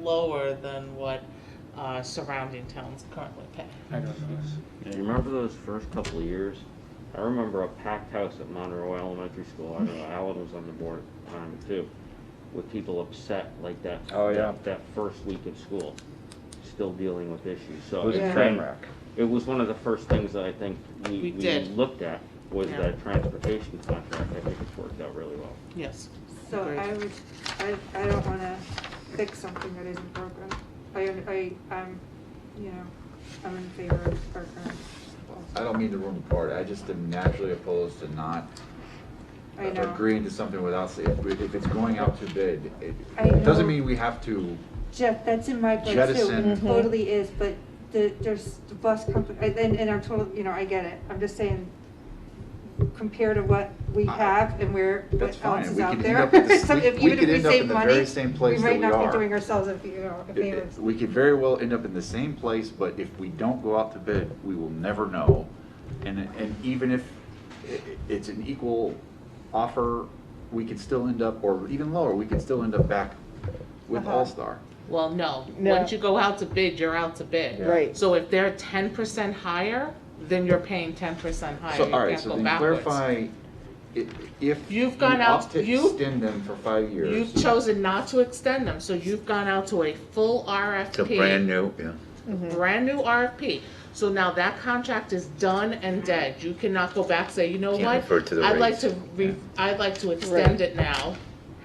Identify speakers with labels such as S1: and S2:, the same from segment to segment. S1: lower than what uh, surrounding towns currently pay.
S2: I don't know.
S3: Do you remember those first couple of years? I remember a packed house at Monroe Elementary School, I know Alan was on the board at the time too, with people upset like that.
S4: Oh, yeah.
S3: that- That first week of school, still dealing with issues, so.
S4: It was
S1: Yeah.
S4: a train wreck.
S3: It was one of the first things that I think we,
S1: We
S3: we
S1: did.
S3: looked at, was
S1: Yeah.
S3: that transportation contract, I think it's worked out really well.
S1: Yes.
S5: So
S1: Agreed.
S5: I would, I, I don't wanna fix something that isn't broken. I, I, I'm, you know, I'm in favor of our current
S6: I
S5: policy.
S6: don't mean to ruin the party, I just am naturally opposed to not
S5: I know.
S6: agreeing to something without, se- if, we- if it's going out to bid, it
S5: I
S6: it doesn't
S5: know.
S6: mean we have to,
S5: Jeff, that's in my book too,
S6: Jettison.
S5: it
S6: Mhm.
S5: totally is, but the, there's the bus company, and, and I'm totally, you know, I get it, I'm just saying, compared to what we
S6: I-
S5: have and where,
S6: That's
S5: what
S6: fine.
S5: else is
S6: We
S5: out
S6: could
S5: there.
S6: end up with the-
S5: So
S6: we-
S5: if-
S6: we
S5: even
S6: could
S5: if
S6: end up
S5: save
S6: in the
S5: money,
S6: very same place that
S5: might
S6: we
S5: not
S6: are.
S5: be doing ourselves if, you know, a
S6: it-
S5: favor.
S6: it- we could very well end up in the same place, but if we don't go out to bid, we will never know. And, and even if i- i- it's an equal offer, we could still end up, or even lower, we could still end up back with
S7: Uh-huh.
S6: All-Star.
S1: Well, no,
S7: No.
S1: once you go out to bid, you're out to bid.
S7: Right.
S1: So if they're ten percent higher, then you're paying ten percent higher,
S6: So,
S1: you
S6: all right,
S1: can't
S6: so
S1: go
S6: then
S1: backwards.
S6: clarify, i- if.
S1: You've
S6: you
S1: gone out-
S6: opt to
S1: you-
S6: Extend them for five years.
S1: You've chosen not to extend them, so you've gone out to a full RFP.
S8: It's a brand new, yeah.
S1: brand new RFP. So now that contract is done and dead. You cannot go back, say, you know
S8: Can't
S1: what?
S8: refer to the
S1: I'd like
S8: rates.
S1: to, re- I'd like to extend it now,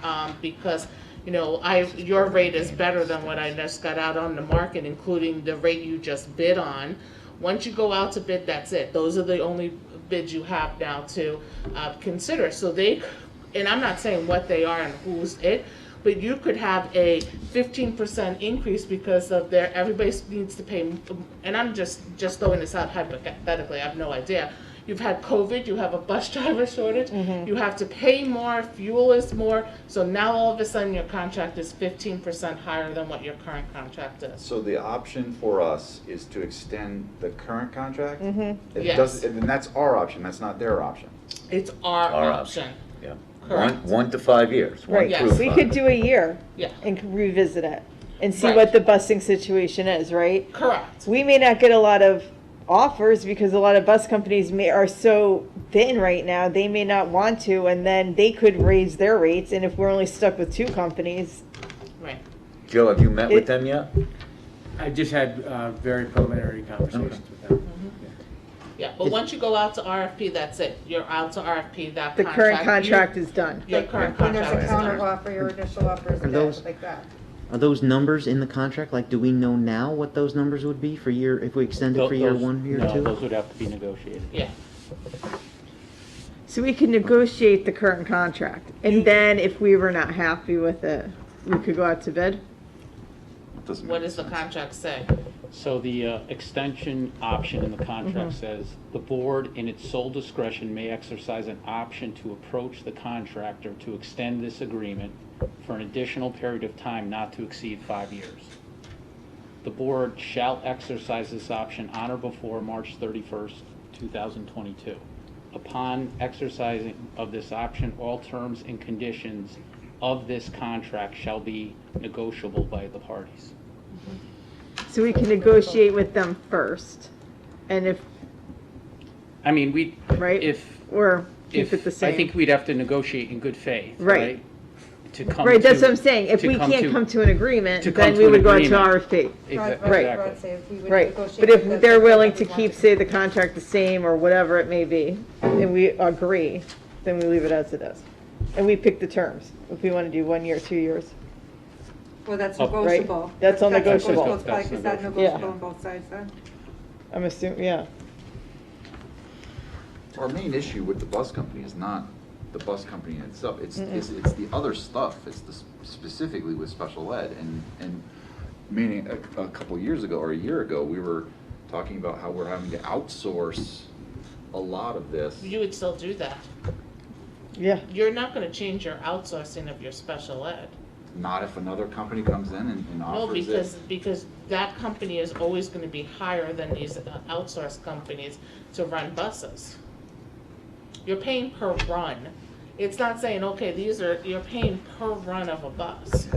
S1: um, because, you know, I, your rate is better than what I just got out on the market, including the rate you just bid on. Once you go out to bid, that's it. Those are the only bids you have now to, uh, consider. So they, and I'm not saying what they are and who's it, but you could have a fifteen percent increase because of their, everybody needs to pay, and I'm just, just throwing this out hypothetically, I have no idea. You've had COVID, you have a bus driver shortage, you have to pay more, fuel is more, so now all of a sudden your contract is fifteen percent higher than what your current contract is.
S6: So the option for us is to extend the current contract? Mm-hmm.
S1: Yes.
S6: It doesn't, and that's our option, that's not their option.
S1: It's our
S8: Our
S1: option,
S8: Yeah.
S1: Correct.
S8: One, one to five years, one
S1: Yes.
S8: through
S1: proof
S8: five.
S7: We could do a year
S1: yeah,
S7: and c- revisit it and see
S1: Right.
S7: what the busing situation is, right?
S1: correct,
S7: We may not get a lot of offers because a lot of bus companies may, are so thin right now, they may not want to, and then they could raise their rates, and if we're only stuck with two companies,
S1: right.
S8: Joe, have you met
S7: It-
S8: with them yet?
S2: I just had uh, very preliminary conversations with them.
S1: Yeah, but once you go out to RFP, that's it. You're out to RFP, that contract.
S7: the current
S1: you-
S7: contract is done.
S1: Your current
S5: When there's
S1: contract
S5: a
S1: is
S5: counter
S1: done.
S5: offer, your initial offer is
S9: Are those-
S5: dead, like that.
S9: Are those numbers in the contract? Like, do we know now what those numbers would be for year, if we extend it for year
S2: Those-
S9: one, year
S2: No,
S9: two?
S2: those would have to be negotiated.
S1: Yeah.
S7: So we can negotiate the current contract, and then if we were not happy with it, we could go out to bid?
S6: It doesn't
S1: What
S6: make
S1: does the
S6: sense.
S1: contract say?
S2: So the uh, extension option in the contract says, "The board, in its sole discretion, may exercise an option to approach the contractor to extend this agreement for an additional period of time not to exceed five years. The board shall exercise this option on or before March 31st, 2022. Upon exercising of this option, all terms and conditions of this contract shall be negotiable by the parties."
S7: So we can negotiate with them first, and if,
S2: I mean, we,
S7: Right.
S2: if,
S7: or keep
S2: if,
S7: it the
S2: I think
S7: same.
S2: we'd have to negotiate in good faith,
S7: Right.
S2: right? To come
S7: Right, that's
S2: to-
S7: what I'm saying, if
S2: to
S7: we can't come to an agreement,
S2: to
S7: then
S2: come
S7: we
S2: to an
S7: would go out to
S2: agreement.
S7: RFP.
S2: Exa-
S5: Rod- Rod-
S7: Right.
S5: Rod
S2: Exactly.
S5: said if we would
S7: Right,
S5: negotiate
S7: but
S5: with
S7: if
S5: us,
S7: they're
S5: we
S7: willing
S5: want
S7: to keep, say, the contract the same, or whatever it may be, and we agree, then we leave it as it is. And we pick the terms, if we want to do one year, two years.
S5: Well, that's
S2: Up- right.
S5: negotiable.
S7: That's all negotiable.
S5: It's probably,
S2: That's
S5: is that
S2: negotiable.
S5: negotiable on both sides then?
S7: I'm assuming, yeah.
S6: Our main issue with the bus company is not the bus company in itself, it's, it's, it's the other stuff, it's the, s- specifically with special ed and, and meaning a, a couple years ago or a year ago, we were talking about how we're having to outsource a lot of this.
S1: You would still do that.
S7: Yeah.
S1: You're not gonna change your outsourcing of your special ed.
S6: Not if another company comes in and, and
S1: No,
S6: offers it.
S1: because, because that company is always gonna be higher than these uh, outsourced companies to run buses. You're paying per run. It's not saying, okay, these are, you're paying per run of a bus.